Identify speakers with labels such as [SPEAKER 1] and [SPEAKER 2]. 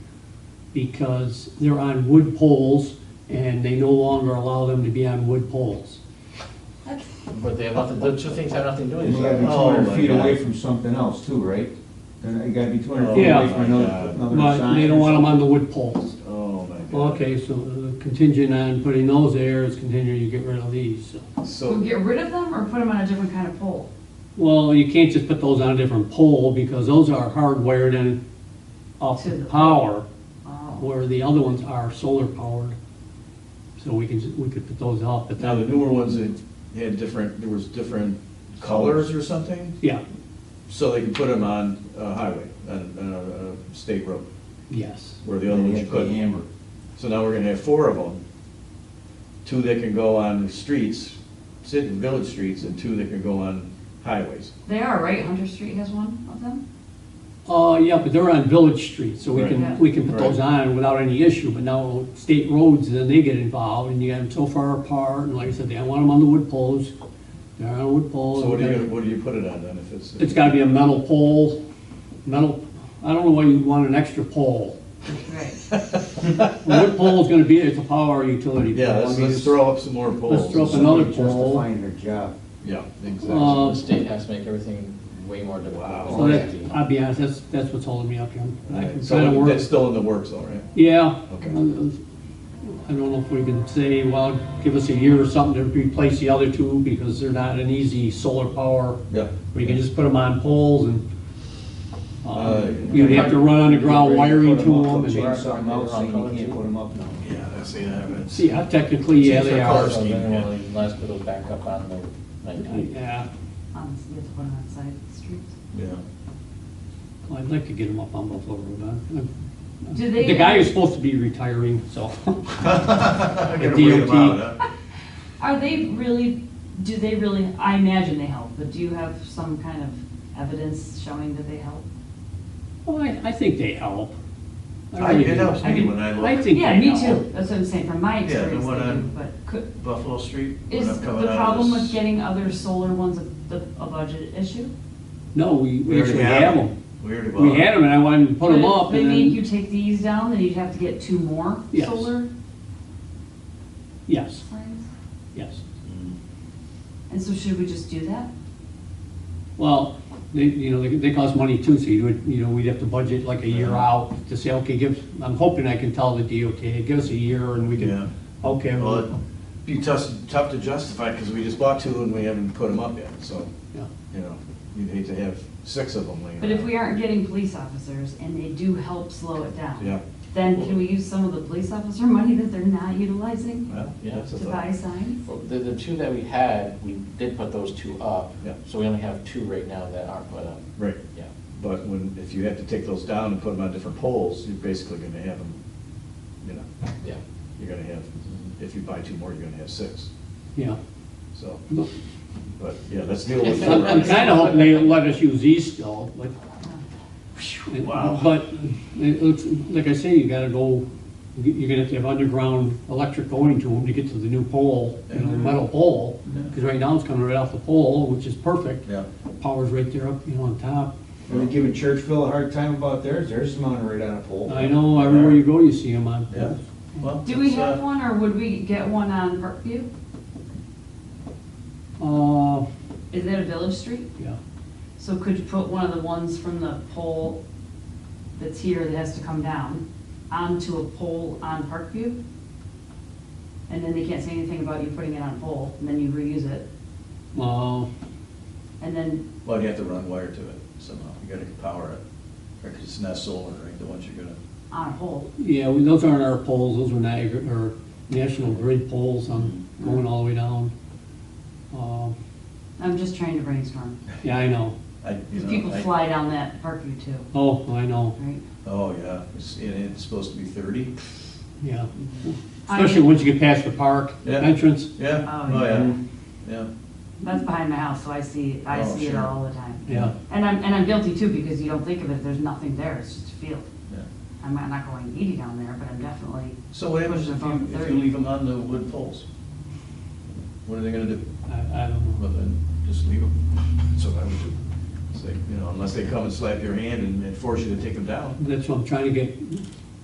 [SPEAKER 1] because they're on wood poles and they no longer allow them to be on wood poles.
[SPEAKER 2] But they have nothing, the two things have nothing to do with
[SPEAKER 3] And
[SPEAKER 2] each
[SPEAKER 3] you
[SPEAKER 2] other.
[SPEAKER 3] gotta be two
[SPEAKER 4] Oh,
[SPEAKER 3] hundred
[SPEAKER 4] my
[SPEAKER 3] feet
[SPEAKER 4] God.
[SPEAKER 3] away from something else too, right? And you gotta be two hundred
[SPEAKER 4] Oh,
[SPEAKER 3] feet away
[SPEAKER 1] my
[SPEAKER 3] from another,
[SPEAKER 4] God.
[SPEAKER 3] another sign.
[SPEAKER 1] But they don't want them on the wood poles.
[SPEAKER 4] Oh, my God.
[SPEAKER 1] Okay, so uh, contingent on putting those there is contingent you get rid of these, so.
[SPEAKER 4] So,
[SPEAKER 5] So get rid of them or put them on a different kind of pole?
[SPEAKER 1] Well, you can't just put those on a different pole because those are hardwired in off
[SPEAKER 5] To
[SPEAKER 1] the
[SPEAKER 5] the-
[SPEAKER 1] power,
[SPEAKER 5] Oh,
[SPEAKER 1] where the other ones are solar powered. So we can, ju- we could put those off, but
[SPEAKER 4] now
[SPEAKER 1] that,
[SPEAKER 4] the newer ones that had different, there was different colors or something,
[SPEAKER 1] yeah,
[SPEAKER 4] so they could put them on a highway, on, on a- a state road,
[SPEAKER 1] yes.
[SPEAKER 4] where the other
[SPEAKER 3] You
[SPEAKER 4] ones you
[SPEAKER 3] have to
[SPEAKER 4] couldn't.
[SPEAKER 3] hammer.
[SPEAKER 4] So now we're gonna have four of them, two that can go on the streets, sit in village streets, and two that can go on highways.
[SPEAKER 5] They are, right? Hunter Street has one of them?
[SPEAKER 1] Uh, yeah, but they're on village streets, so we
[SPEAKER 5] Right.
[SPEAKER 1] can, we can put those on without any issue, but now state roads, then they get involved, and you got them so far apart, and like I said, they don't want them on the wood poles. They're on wood poles.
[SPEAKER 4] So what do you, what do you put it on then, if it's?
[SPEAKER 1] It's gotta be a metal pole, metal, I don't know why you'd want an extra pole.
[SPEAKER 5] Right.
[SPEAKER 1] Well, What pole is gonna be, it's a power utility pole.
[SPEAKER 4] Yeah,
[SPEAKER 1] I
[SPEAKER 4] let's,
[SPEAKER 1] mean,
[SPEAKER 4] let's throw up some more poles.
[SPEAKER 1] let's throw up
[SPEAKER 4] some-
[SPEAKER 1] Another
[SPEAKER 3] Somebody
[SPEAKER 1] pole.
[SPEAKER 3] Justifying their job.
[SPEAKER 4] Yeah,
[SPEAKER 1] Uh,
[SPEAKER 4] exactly.
[SPEAKER 2] The state has to make everything way more difficult.
[SPEAKER 1] So
[SPEAKER 4] Wow.
[SPEAKER 1] that, I'll be honest, that's, that's what's holding me up here. I can kinda
[SPEAKER 4] So
[SPEAKER 1] work,
[SPEAKER 4] that's still in the works, all right?
[SPEAKER 1] yeah.
[SPEAKER 4] Okay.
[SPEAKER 1] I don't know if we can say, well, give us a year or something to replace the other two, because they're not an easy solar power.
[SPEAKER 4] Yeah.
[SPEAKER 1] We can just put them on poles and,
[SPEAKER 4] Uh,
[SPEAKER 1] uh, you'd have to run underground wiring to
[SPEAKER 3] Put 'em up,
[SPEAKER 1] them
[SPEAKER 3] Change
[SPEAKER 1] and,
[SPEAKER 3] something else, saying you can't put them up now.
[SPEAKER 4] Yeah, that's the, that's.
[SPEAKER 1] see, uh, technically, yeah,
[SPEAKER 4] Change
[SPEAKER 1] they
[SPEAKER 4] their
[SPEAKER 1] are. Uh,
[SPEAKER 4] colours.
[SPEAKER 2] So then we'll let's put those back up on the nighttime.
[SPEAKER 1] Yeah,
[SPEAKER 5] On, you Um, have to put them on side streets.
[SPEAKER 4] Yeah.
[SPEAKER 1] Well, I'd like to get them up on Buffalo Road, huh?
[SPEAKER 5] Do they?
[SPEAKER 1] uh,
[SPEAKER 5] uh,
[SPEAKER 1] The guy is supposed to be retiring, so.
[SPEAKER 4] Gotta
[SPEAKER 1] DOT.
[SPEAKER 4] wait 'em out, huh?
[SPEAKER 5] Are they really, do they really, I imagine they help, but do you have some kind of evidence showing that they help?
[SPEAKER 1] Well, I, I think they help.
[SPEAKER 4] I-
[SPEAKER 1] really
[SPEAKER 4] it
[SPEAKER 1] do.
[SPEAKER 4] helps me when I
[SPEAKER 1] I
[SPEAKER 4] look.
[SPEAKER 1] think
[SPEAKER 5] Yeah,
[SPEAKER 1] they
[SPEAKER 5] me
[SPEAKER 1] help.
[SPEAKER 5] too. That's what I'm saying, from my
[SPEAKER 4] Yeah, the
[SPEAKER 5] experience,
[SPEAKER 4] one
[SPEAKER 5] they do,
[SPEAKER 4] on-
[SPEAKER 5] but could,
[SPEAKER 4] Buffalo Street. when
[SPEAKER 5] is
[SPEAKER 4] I'm
[SPEAKER 5] the
[SPEAKER 4] coming out of
[SPEAKER 5] problem
[SPEAKER 4] this-
[SPEAKER 5] with getting other solar ones a, the- a budget issue?
[SPEAKER 1] No, we, we
[SPEAKER 4] already
[SPEAKER 1] actually
[SPEAKER 4] have
[SPEAKER 1] have
[SPEAKER 4] 'em.
[SPEAKER 1] them.
[SPEAKER 4] We already bought
[SPEAKER 1] We had
[SPEAKER 4] it.
[SPEAKER 1] them and I wanted to put them up
[SPEAKER 5] But if
[SPEAKER 1] and
[SPEAKER 5] They make you
[SPEAKER 1] then,
[SPEAKER 5] take these down, then you'd have to get two more
[SPEAKER 1] Yes.
[SPEAKER 5] solar
[SPEAKER 1] yes,
[SPEAKER 5] signs?
[SPEAKER 1] yes.
[SPEAKER 5] And so should we just do that?
[SPEAKER 1] Well, they, you know, they, they cost money too, so you would, you know, we'd have to budget like a year out to say, okay, give, I'm hoping I can tell the DOT, give us a year and we
[SPEAKER 4] Yeah.
[SPEAKER 1] can, okay.
[SPEAKER 4] Well,
[SPEAKER 1] well,
[SPEAKER 4] it'd be tough, tough to justify, because we just bought two and we haven't put them up yet, so,
[SPEAKER 1] yeah.
[SPEAKER 4] you know, you'd hate to have six of them laying
[SPEAKER 5] But if
[SPEAKER 4] around.
[SPEAKER 5] we aren't getting police officers and they do help slow it down.
[SPEAKER 4] Yeah.
[SPEAKER 5] Then can we use some of the police officer money that they're not utilizing
[SPEAKER 4] Well,
[SPEAKER 2] Yeah.
[SPEAKER 4] that's a
[SPEAKER 5] to
[SPEAKER 4] thought.
[SPEAKER 5] buy signs?
[SPEAKER 2] Well, The, the two that we had, we did put those two up.
[SPEAKER 4] Yeah.
[SPEAKER 2] So we only have two right now that aren't put up,
[SPEAKER 4] Right,
[SPEAKER 2] yeah.
[SPEAKER 4] but when, if you have to take those down and put them on different poles, you're basically gonna have them, you know,
[SPEAKER 2] Yeah.
[SPEAKER 4] you're gonna have, if you buy two more, you're gonna have six,
[SPEAKER 1] Yeah.
[SPEAKER 4] so,
[SPEAKER 1] Look,
[SPEAKER 4] but, yeah, let's deal with.
[SPEAKER 1] I'm, I'm kinda hoping they let us use these still, but
[SPEAKER 4] Wow.
[SPEAKER 1] But, it looks, like I say, you gotta go, you're gonna have to have underground electric going to them to get to the new pole, you know,
[SPEAKER 4] Mm-hmm.
[SPEAKER 1] the metal pole. Because right now it's coming right off the pole, which is perfect.
[SPEAKER 4] Yeah.
[SPEAKER 1] Power's right there up, you know, on top.
[SPEAKER 3] They were giving Churchville a hard time about theirs, theirs is mounted right on a pole.
[SPEAKER 1] I know, everywhere you go, you see them on
[SPEAKER 4] Yeah.
[SPEAKER 1] poles.
[SPEAKER 4] Well,
[SPEAKER 5] Do we
[SPEAKER 4] it's, uh,
[SPEAKER 5] have one or would we get one on Parkview?
[SPEAKER 1] Uh,
[SPEAKER 5] Is that a village street?
[SPEAKER 1] yeah,
[SPEAKER 5] So could you put one of the ones from the pole that's here that has to come down onto a pole on Parkview? And then they can't say anything about you putting it on a pole and then you reuse it.
[SPEAKER 1] well,
[SPEAKER 5] And then,
[SPEAKER 4] Well, you have to run wire to it somehow, you gotta power it, because it's not solar, right, the ones you're gonna,
[SPEAKER 5] on a pole,
[SPEAKER 1] yeah, we- those aren't our poles, those are Niagara, or National Grid poles, I'm
[SPEAKER 4] Mm-hmm.
[SPEAKER 1] going all the way down. Um,
[SPEAKER 5] I'm just trying to brainstorm.
[SPEAKER 1] Yeah, I know.
[SPEAKER 4] I, you
[SPEAKER 5] Because
[SPEAKER 4] know.
[SPEAKER 5] people
[SPEAKER 4] I-
[SPEAKER 5] fly down that Parkview too,
[SPEAKER 1] Oh, I know,
[SPEAKER 5] right?
[SPEAKER 4] Oh, yeah, it's, and it's supposed to be thirty?
[SPEAKER 1] yeah.
[SPEAKER 5] I
[SPEAKER 1] Especially
[SPEAKER 5] mean-
[SPEAKER 1] once you get past the park
[SPEAKER 4] Yeah.
[SPEAKER 1] entrance.
[SPEAKER 4] Yeah,
[SPEAKER 5] Oh,
[SPEAKER 4] oh, yeah,
[SPEAKER 3] yeah.
[SPEAKER 4] yeah.
[SPEAKER 5] That's behind my house, so I see, I
[SPEAKER 4] Oh,
[SPEAKER 5] see it
[SPEAKER 4] sure.
[SPEAKER 5] all the time.
[SPEAKER 1] Yeah.
[SPEAKER 5] And I'm, and I'm guilty too, because you don't think of it, there's nothing there, it's just a field.
[SPEAKER 4] yeah.
[SPEAKER 5] I'm not- not going eighty down there, but I'm definitely,
[SPEAKER 4] So what happens if you, if you leave them on the wood poles? What are they gonna do?
[SPEAKER 1] I, I don't know.
[SPEAKER 4] Well, then, just leave them, that's what I would do. Say, you know, unless they come and slap your hand and and force you to take them down.
[SPEAKER 1] That's what I'm trying to get